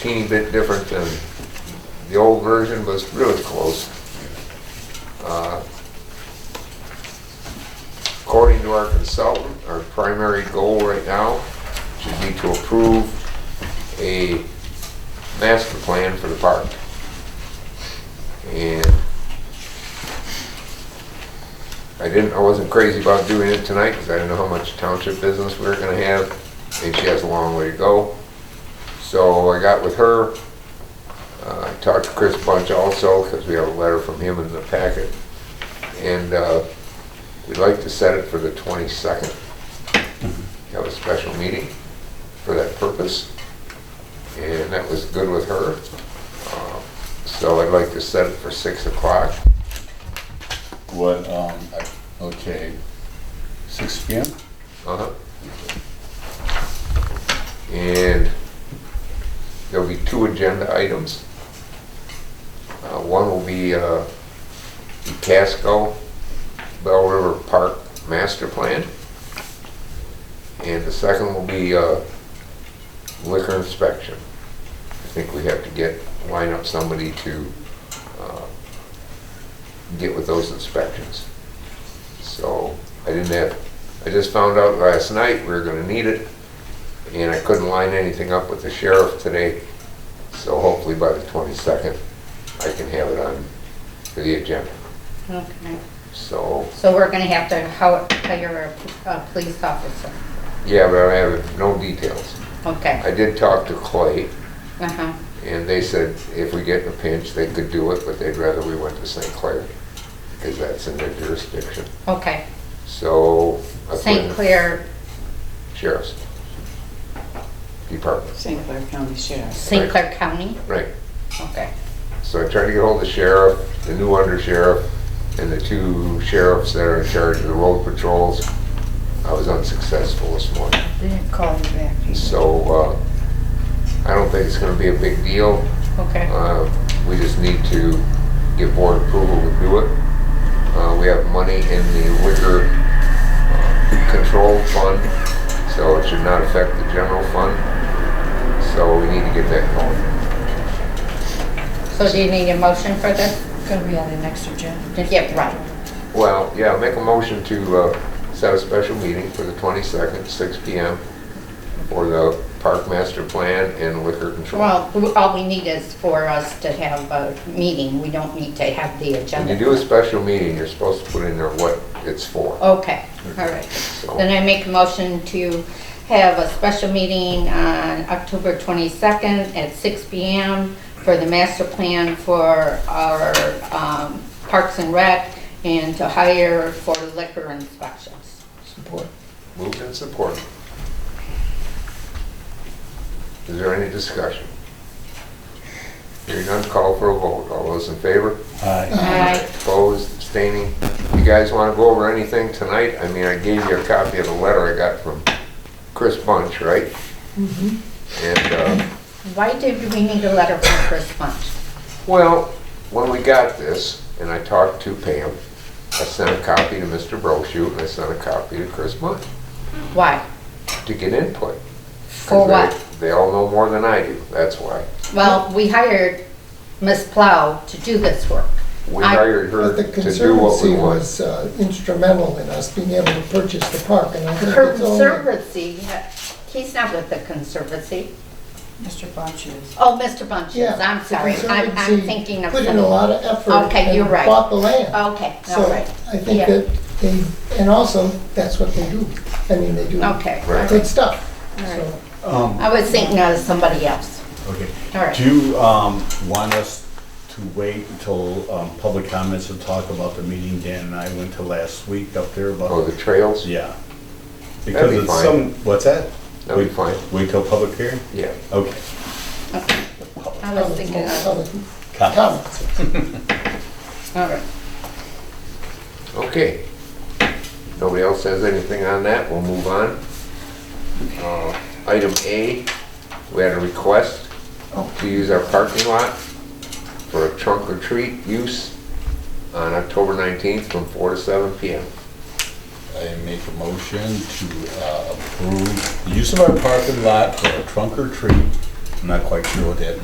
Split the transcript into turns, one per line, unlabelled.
teeny bit different than the old version, but it's really close. Uh, According to our consultant, our primary goal right now should be to approve a master plan for the park. And I didn't, I wasn't crazy about doing it tonight because I didn't know how much township business we were gonna have. And she has a long way to go. So I got with her. Uh, I talked to Chris Bunch also because we have a letter from him in the packet. And uh, we'd like to set it for the 22nd. Have a special meeting for that purpose. And that was good with her. Uh, So I'd like to set it for 6 o'clock.
What, um, I- okay, six P M?
Uh-huh. And there'll be two agenda items. Uh, One will be uh, the Casco Bell River Park Master Plan. And the second will be uh, liquor inspection. I think we have to get, line up somebody to uh, get with those inspections. So I didn't have, I just found out last night we were gonna need it, and I couldn't line anything up with the sheriff today. So hopefully by the twenty-second, I can have it on for the agenda.
Okay,
So,
so we're gonna have to how- hire a, a police officer,
yeah, but I have no details.
okay,
I did talk to Clay,
uh-huh,
and they said if we get in a pinch, they could do it, but they'd rather we went to St. Clair, because that's in their jurisdiction.
okay.
So. I put
St.
in
Clair,
Sheriff's Department,
St. Clair County Sheriff.
St. Clair County,
right.
okay,
So I tried to get hold of the sheriff, the new undersheriff, and the two sheriffs that are in charge of the road patrols. I was unsuccessful this morning.
They didn't call you back.
So uh, I don't think it's going to be a big deal.
okay,
Uh, We just need to get board approval to do it. Uh, We have money in the liquor uh, control fund, so it should not affect the general fund. So we need to get that going.
so do you need a motion for this?
Gonna be on the next agenda.
Yeah, right,
Well, yeah, make a motion to uh, set a special meeting for the 22nd, 6 PM, for the park master plan and liquor control.
well, w- all we need is for us to have a meeting, we don't need to have the
When
agenda.
you do a special meeting, you're supposed to put in there what it's for.
Okay, all right,
So,
then I make a motion to have a special meeting on October twenty-second at six P M for the master plan for our, um, Parks and Rec and to hire for liquor inspections.
Support.
Moved and supported. Is there any discussion? Hearing none, call for a vote. All those in favor?
Aye.
Aye.
Opposed, abstaining? You guys want to go over anything tonight? I mean, I gave you a copy of the letter I got from Chris Bunch, right?
Mm-hmm.
And, uh,
Why did we need a letter from Chris Punch?
well, when we got this, and I talked to Pam, I sent a copy to Mr. Brochu, and I sent a copy to Chris Bunch
Why?
to get input.
For
Because
what?
They they all know more than I do, that's why.
Well, we hired Ms. Plow to do this work.
We
I-
hired her
But the
to do what we
Conservancy
want.
was uh, instrumental in us being able to purchase the park, and I
The
think it's only,
Conservancy, he's not with the Conservancy.
Mr. Bunch is.
Oh, Mr. Bunches,
yeah.
I'm
the
sorry, I'm, I'm
Conservancy
thinking of.
Put in a
something.
lot of effort.
Okay, you're right.
And bought the land.
Okay, all
So
right.
I think
Yeah.
that they, and also, that's what they do. I mean, they do
Okay, all
Right.
right.
good stuff. So
I was thinking of somebody else.
Okay.
All right.
Do you, um, want us to wait until, um, public comments and talk about the meeting Dan and I went to last week up there about?
Oh, the trails?
Yeah.
be
Because it's
fine.
some, what's that?
That'd be fine.
Wait- Wait till public hearing?
Yeah.
Okay.
I was
public-
thinking of,
public
Comments.
Comments.
all right.
Okay. Nobody else has anything on that, we'll move on. Uh, Item A, we had a request to use our parking lot for a trunk or treat use on October 19th from 4 to 7 PM.
I make a motion to uh, approve the use of our parking lot for a trunk or treat I'm not quite sure what that